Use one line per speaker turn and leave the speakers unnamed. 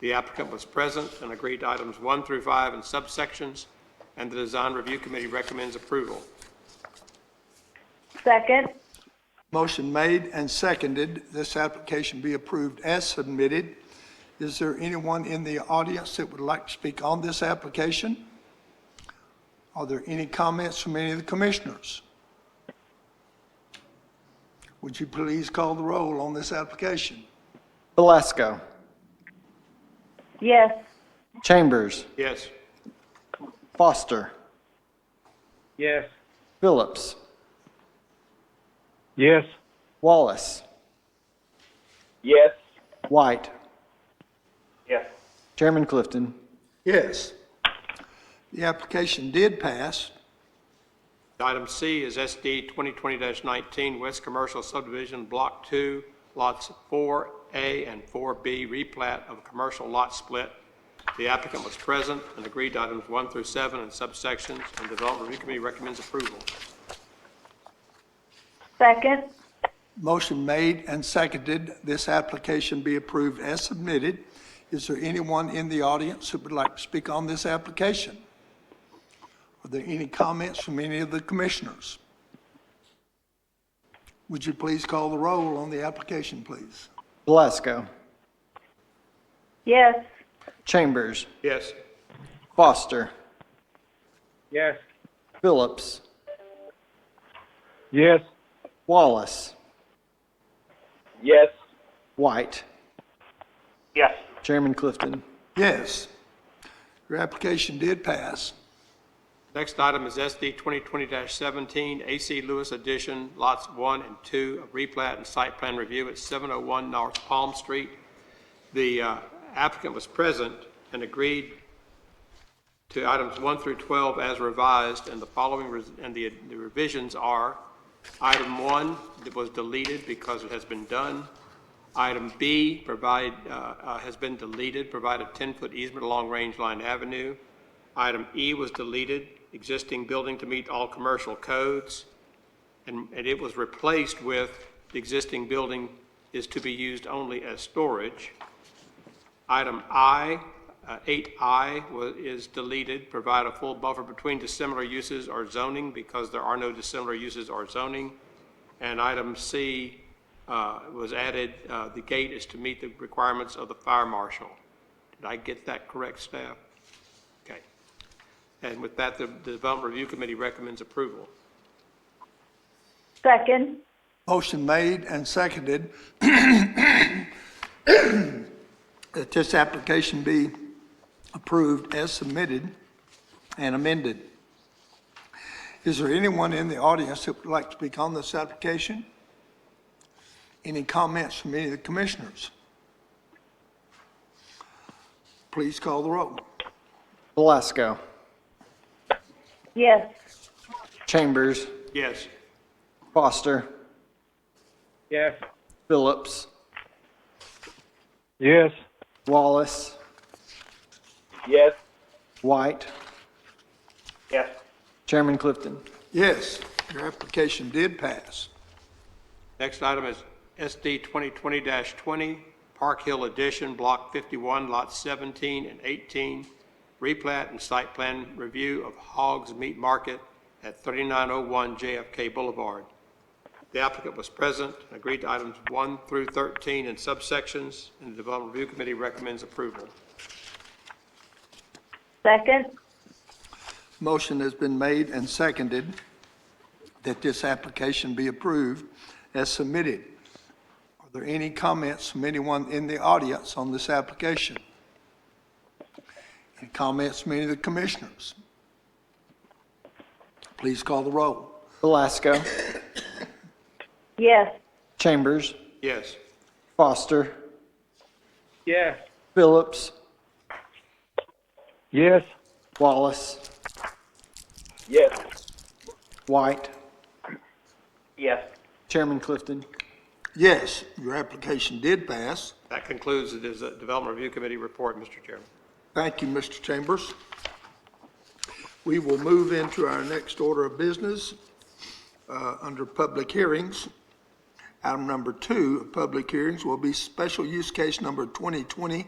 The applicant was present and agreed to items one through five in subsections, and the Design Review Committee recommends approval.
Second.
Motion made and seconded, this application be approved as submitted. Is there anyone in the audience that would like to speak on this application? Are there any comments from any of the commissioners? Would you please call the roll on this application?
Valesco.
Yes.
Chambers.
Yes.
Foster.
Yes.
Phillips.
Yes.
Wallace.
Yes.
White.
Yes.
Chairman Clifton.
Yes. The application did pass.
Item C is SD 2020-19 West Commercial Subdivision Block 2, lots 4A and 4B, replat of a commercial lot split. The applicant was present and agreed to items 1 through 7 in subsections, and the Development Review Committee recommends approval.
Second.
Motion made and seconded, this application be approved as submitted. Is there anyone in the audience who would like to speak on this application? Are there any comments from any of the commissioners? Would you please call the roll on the application, please?
Valesco.
Yes.
Chambers.
Yes.
Foster.
Yes.
Phillips.
Yes.
Wallace.
Yes.
White.
Yes.
Chairman Clifton.
Yes, your application did pass.
Next item is SD 2020-17 AC Lewis Edition, lots 1 and 2, of replat and site plan review at 701 North Palm Street. The uh, applicant was present and agreed to items 1 through 12 as revised, and the following, res- and the the revisions are, item 1 that was deleted because it has been done. Item B provide, uh, uh, has been deleted, provide a 10-foot easement along Range Line Avenue. Item E was deleted, existing building to meet all commercial codes, and and it was replaced with, the existing building is to be used only as storage. Item I, uh, 8I wa- is deleted, provide a full buffer between dissimilar uses or zoning because there are no dissimilar uses or zoning. And item C uh, was added, uh, the gate is to meet the requirements of the fire marshal. Did I get that correct, staff? Okay. And with that, the the Development Review Committee recommends approval.
Second.
Motion made and seconded that this application be approved as submitted and amended. Is there anyone in the audience that would like to speak on this application? Any comments from any of the commissioners? Please call the roll.
Valesco.
Yes.
Chambers.
Yes.
Foster.
Yes.
Phillips.
Yes.
Wallace.
Yes.
White.
Yes.
Chairman Clifton.
Yes, your application did pass.
Next item is SD 2020-20, Park Hill Edition, Block 51, Lots 17 and 18, replat and site plan review of Hogs Meat Market at 3901 JFK Boulevard. The applicant was present and agreed to items 1 through 13 in subsections, and the Development Review Committee recommends approval.
Second.
Motion has been made and seconded that this application be approved as submitted. Are there any comments from anyone in the audience on this application? Any comments from any of the commissioners? Please call the roll.
Valesco.
Yes.
Chambers.
Yes.
Foster.
Yes.
Phillips.
Yes.
Wallace.
Yes.
White.
Yes.
Chairman Clifton.
Yes, your application did pass.
That concludes the Des- Development Review Committee report, Mr. Chairman.
Thank you, Mr. Chambers. We will move into our next order of business uh, under public hearings. Item number two of public hearings will be special use case number 2020